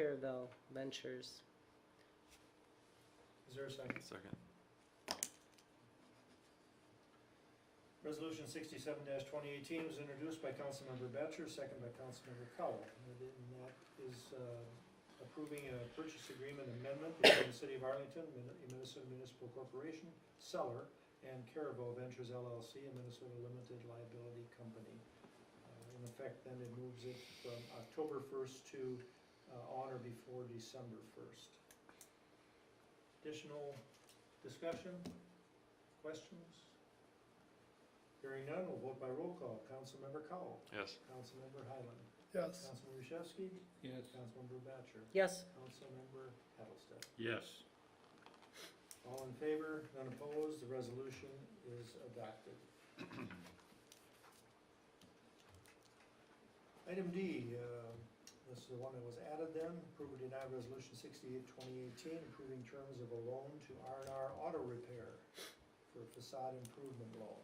Caravel Ventures. Is there a second? Second. Resolution sixty-seven twenty eighteen was introduced by Councilmember Batchor, second by Councilmember Cowell. And it- and that is uh, approving a purchase agreement amendment between the City of Arlington, Min- Minnesota Municipal Corporation, seller, and Caravel Ventures LLC, a Minnesota limited liability company. Uh, In effect, then it moves it from October first to uh, on or before December first. Additional discussion, questions? Hearing none, we'll vote by roll call. Councilmember Cowell. Yes. Councilmember Highland. Yes. Councilmember Yashewski. Yes. Councilmember Batchor. Yes, Councilmember Hattlestead. Yes. All in favor, none opposed, the resolution is adopted. Item D, uh, this is the one that was added then, approve or deny resolution sixty-eight, twenty eighteen, approving terms of a loan to R and R Auto Repair for facade improvement loan.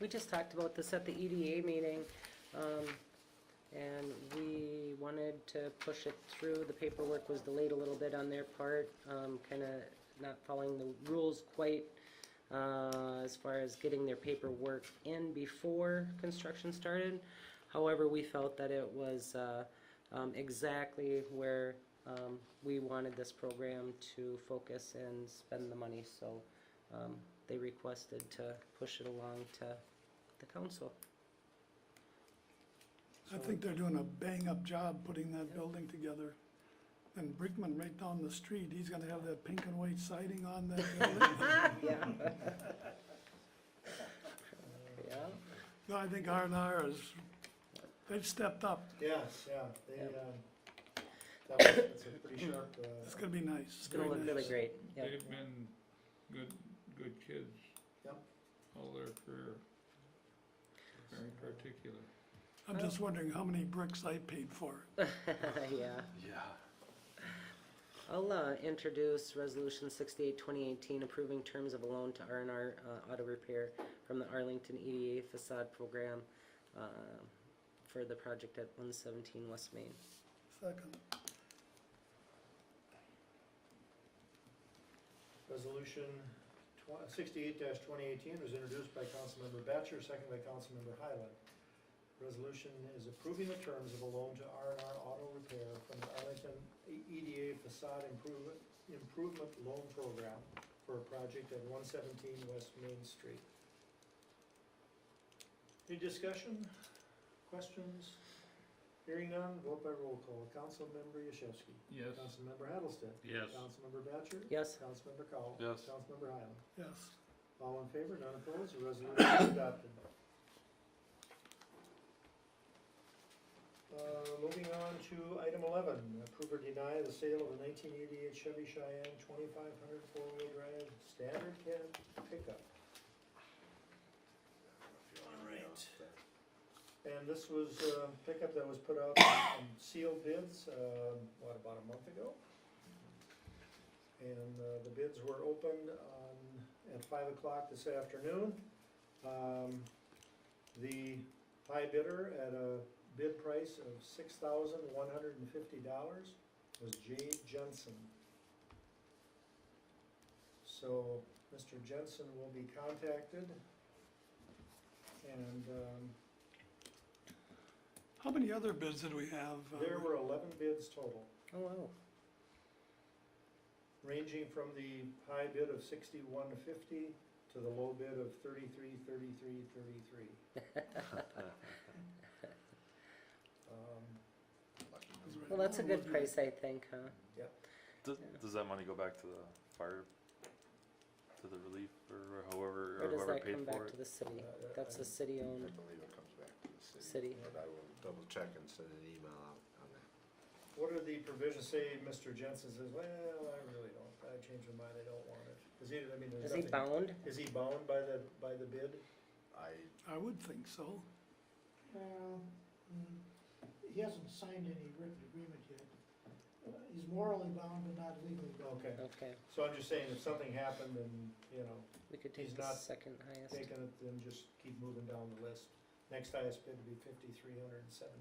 we just talked about this at the EDA meeting, um, and we wanted to push it through. The paperwork was delayed a little bit on their part, um, kinda not following the rules quite, uh, as far as getting their paperwork in before construction started. However, we felt that it was, uh, um, exactly where, um, we wanted this program to focus and spend the money, so, um, they requested to push it along to the council. I think they're doing a bang-up job putting that building together. And Brickman right down the street, he's gonna have that pink and white siding on that building. Yeah. Yeah, No, I think R and R is, they've stepped up. Yes, yeah, they, Yep. uh, that was, that's a pretty sharp, It's uh, gonna be nice. it's gonna look really great, yeah. They've been good, good kids. Yep. All their career, very particular. I'm just wondering how many bricks I paid for. Yeah, Yeah. I'll, uh, introduce resolution sixty-eight, twenty eighteen, approving terms of a loan to R and R, uh, auto repair from the Arlington EDA facade program, uh, for the project at one seventeen West Main. Second. Resolution tw- sixty-eight twenty eighteen was introduced by Councilmember Batchor, second by Councilmember Highland. Resolution is approving the terms of a loan to R and R Auto Repair from the Arlington E- EDA Facade Improvement, Improvement Loan Program for a project at one seventeen West Main Street. Any discussion, questions? Hearing none, vote by roll call. Councilmember Yashewski. Yes. Councilmember Hattlestead. Yes. Councilmember Batchor. Yes, Councilmember Cowell. Yes. Councilmember Highland. Yes. All in favor, none opposed, the resolution is adopted. Uh, moving on to item eleven, approve or deny the sale of a nineteen eighty-eight Chevy Cheyenne 2500 hundred four-wheel drive standard cab pickup. Alright. And this was a pickup that was put out in sealed bids, um, what, about a month ago? And uh, the bids were opened on, at five o'clock this afternoon. Um, The high bidder at a bid price of six thousand one hundred and fifty dollars was Jay Jensen. So Mr. Jensen will be contacted and um, How many other bids did we have? uh, there were eleven bids total. oh wow, ranging from the high bid of sixty-one fifty to the low bid of thirty-three, thirty-three, thirty-three. Um, was right well, that's a down good the- price, I think, huh? Does, Yeah. does that money go back to the fire, to the relief or Or whoever, or does whoever that paid come for back to it? the city? Uh, uh, That's I- a city-owned I believe it comes back to the city. city. But I will double check and send an email out on that. What are the provisions, say, Mr. Jensen says, well, I really don't, I changed my mind, I don't want it. Is he, I mean, there's Is he nothing. bound? Is he bound by the, by the bid? I, I would think so. Well, mm, he hasn't signed any written agreement yet. Uh, He's morally bound but not legally bound. Okay, Okay, so I'm just saying, if something happened and, you know, we could take He's the not second highest. taking it, then just keep moving down the list. Next highest bid would be fifty-three hundred and seventy